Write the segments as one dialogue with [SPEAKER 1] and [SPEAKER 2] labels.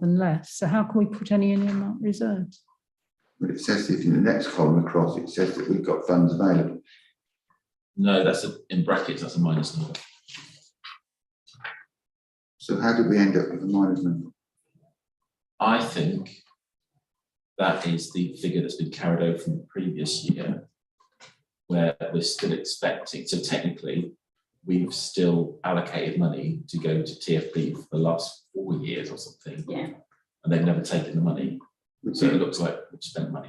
[SPEAKER 1] than less. So how can we put any in earmarked reserves?
[SPEAKER 2] But it says it in the next column across, it says that we've got funds available.
[SPEAKER 3] No, that's a, in brackets, that's a minus number.
[SPEAKER 2] So how did we end up with a minus number?
[SPEAKER 3] I think that is the figure that's been carried over from the previous year, where we're still expecting, so technically, we've still allocated money to go to TFP for the last four years or something.
[SPEAKER 4] Yeah.
[SPEAKER 3] And they've never taken the money,
[SPEAKER 2] Which
[SPEAKER 3] so it
[SPEAKER 2] is
[SPEAKER 3] looks like we've spent money.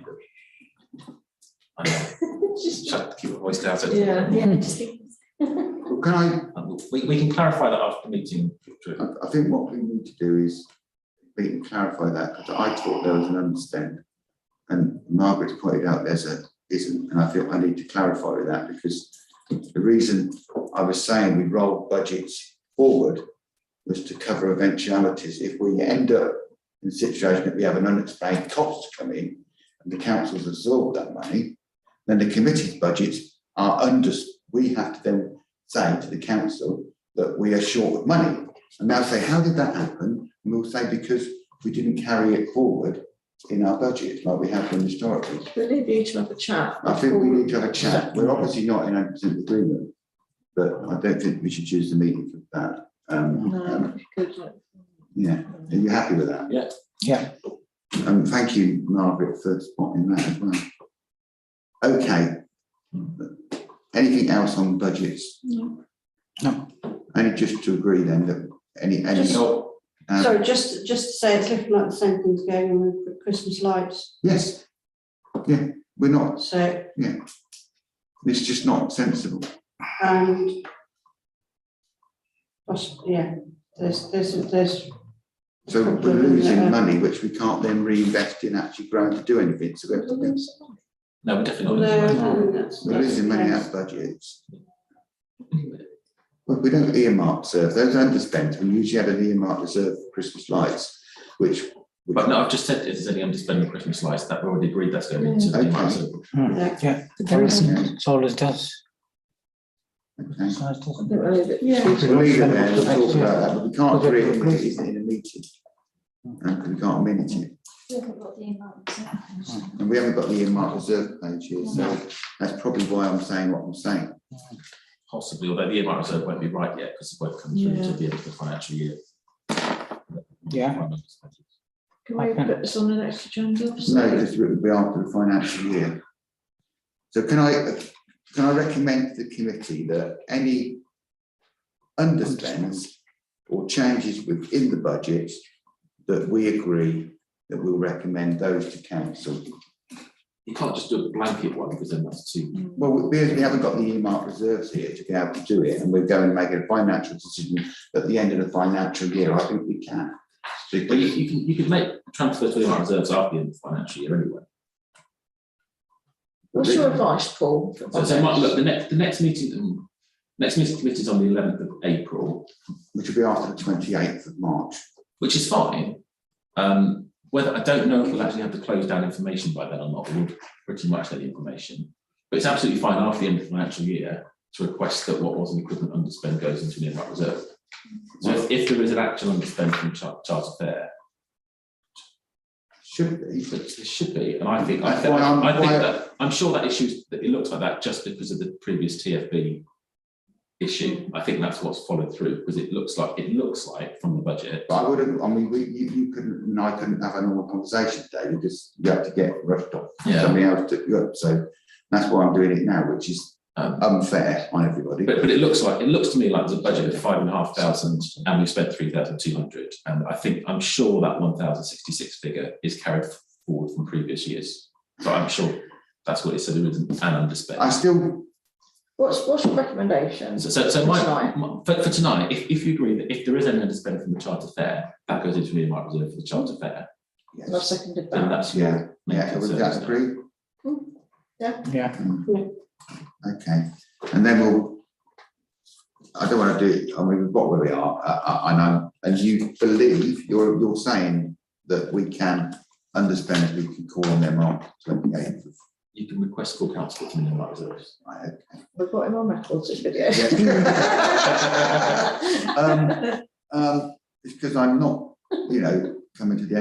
[SPEAKER 3] I know,
[SPEAKER 4] Just-
[SPEAKER 3] shut, keep your voice down. so-
[SPEAKER 4] Yeah, just think.
[SPEAKER 2] Well, Can I,
[SPEAKER 3] And We, we can clarify that after the meeting, Drew.
[SPEAKER 2] I, I think what we need to do is, we can clarify that, because I thought there was an understand. And Margaret's pointed out there's a, isn't, and I feel I need to clarify with that, because the reason I was saying we roll budgets forward was to cover eventualities. If we end up in a situation that we have an unexplained cost come in, and the council's absorbed that money, then the committee's budgets are under, we have to then say to the council that we are short of money. And they'll say, how did that happen? And we'll say, because we didn't carry it forward in our budget like we have done historically.
[SPEAKER 4] We leave you to have a chat.
[SPEAKER 2] I think we need to have a chat. We're obviously not in 100% agreement, but I don't think we should choose the meeting for that. Um, um,
[SPEAKER 4] No, good, like,
[SPEAKER 2] Yeah, are you happy with that?
[SPEAKER 3] Yeah.
[SPEAKER 5] Yeah.
[SPEAKER 2] Um, thank you, Margaret, for spotting that as well. Okay. Anything else on budgets?
[SPEAKER 4] No.
[SPEAKER 5] No.
[SPEAKER 2] Only just to agree then that any, any.
[SPEAKER 6] Just-
[SPEAKER 2] um,
[SPEAKER 6] Sorry, just, just to say, it's looking like the same thing's going on with the Christmas lights,
[SPEAKER 2] Yes, yeah, we're not,
[SPEAKER 6] so,
[SPEAKER 2] it's just not sensible.
[SPEAKER 6] and. gosh, yeah, there's, there's, there's.
[SPEAKER 2] So we're losing money, which we can't then reinvest in actually growing to do anything, so we're
[SPEAKER 3] No, we're definitely not.
[SPEAKER 6] No, no, that's.
[SPEAKER 2] we're losing money
[SPEAKER 6] that's-
[SPEAKER 2] out of budgets. Well, we don't earmark reserve, those underspends, we usually had an earmark reserve for Christmas lights, which. we-
[SPEAKER 3] But no, I've just said, is there any underspending Christmas lights that we already agreed that's going into the
[SPEAKER 2] Okay.
[SPEAKER 3] market?
[SPEAKER 6] Yeah.
[SPEAKER 1] There is-
[SPEAKER 2] Yeah,
[SPEAKER 5] It's all it does.
[SPEAKER 2] okay.
[SPEAKER 5] It's nice, doesn't
[SPEAKER 4] don't
[SPEAKER 5] it?
[SPEAKER 4] know, but-
[SPEAKER 6] Yeah,
[SPEAKER 2] We'll leave it there, we'll talk about that, but we can't agree on it, it isn't in a meeting. And we can't minute it, and we haven't got the earmark reserve page here, so that's probably why I'm saying what I'm saying.
[SPEAKER 3] Possibly, although the earmark reserve won't be right yet because it won't come through to the end of the financial year.
[SPEAKER 5] Yeah.
[SPEAKER 4] Can we put this on the next agenda?
[SPEAKER 2] No, because it would be after the financial year. So can I, can I recommend to the committee that any underspends or changes within the budget that we agree that we'll recommend those to council?
[SPEAKER 3] You can't just do a blanket one because then that's too.
[SPEAKER 2] Well, because we haven't got the earmark reserves here to be able to do it, and we're going to make a financial decision at the end of the financial year, I think we can.
[SPEAKER 3] But you, you can, you could make transfers to the earmark reserves after the end of the financial year anyway.
[SPEAKER 4] What's your advice, Paul?
[SPEAKER 3] So, so Mark, look, the next, the next meeting, um, next meeting committee is on the eleventh of April,
[SPEAKER 2] Which will be after the twenty-eighth of March.
[SPEAKER 3] which is fine. Um, whether, I don't know if we'll actually have the closed down information by then or not, but we'll pretty much have the information. But it's absolutely fine after the end of the financial year to request that what was an equivalent underspend goes into an earmark reserve. So if, if there is an actual underspend from Char- Charles Fair,
[SPEAKER 2] Should be,
[SPEAKER 3] there should be, and I think, I
[SPEAKER 2] That's
[SPEAKER 3] think,
[SPEAKER 2] why I'm-
[SPEAKER 3] I think
[SPEAKER 2] why-
[SPEAKER 3] that, I'm sure that issues, that it looks like that just because of the previous TFB issue. I think that's what's followed through, because it looks like, it looks like from the budget,
[SPEAKER 2] But I would have, I mean, we, you, you couldn't, and I couldn't have a normal conversation today because you have to get rushed off.
[SPEAKER 3] Yeah.
[SPEAKER 2] Somebody else took you up, so that's why I'm doing it now, which is
[SPEAKER 3] um,
[SPEAKER 2] unfair on everybody.
[SPEAKER 3] But, but it looks like, it looks to me like there's a budget of five and a half thousand and we spent three thousand two hundred. And I think, I'm sure that one thousand sixty-six figure is carried forward from previous years. So I'm sure that's what it said, it was an
[SPEAKER 2] I
[SPEAKER 3] underspend.
[SPEAKER 2] still,
[SPEAKER 4] What's, what's your recommendation?
[SPEAKER 3] So, so, so my,
[SPEAKER 4] Tonight.
[SPEAKER 3] my- for, for tonight, if, if you agree that if there is any underspend from the charter fair, that goes into the earmark reserve for the charter fair,
[SPEAKER 4] And I
[SPEAKER 2] yes,
[SPEAKER 4] seconded
[SPEAKER 3] then
[SPEAKER 4] that.
[SPEAKER 3] that's. your
[SPEAKER 2] yeah,
[SPEAKER 3] main
[SPEAKER 2] yeah, would
[SPEAKER 3] concern,
[SPEAKER 2] that
[SPEAKER 3] isn't it?
[SPEAKER 2] agree?
[SPEAKER 5] Yeah,
[SPEAKER 2] Okay, and then we'll, I don't want to do, I mean, we've got where we are, I, I, I know, and you believe, you're, you're saying that we can understand, we can call on them on twenty-eighth of,
[SPEAKER 3] You can request full council from the earmark reserves.
[SPEAKER 2] right, okay.
[SPEAKER 4] We've got him on record, this video.
[SPEAKER 2] Um, um, it's because I'm not, you know, coming to the end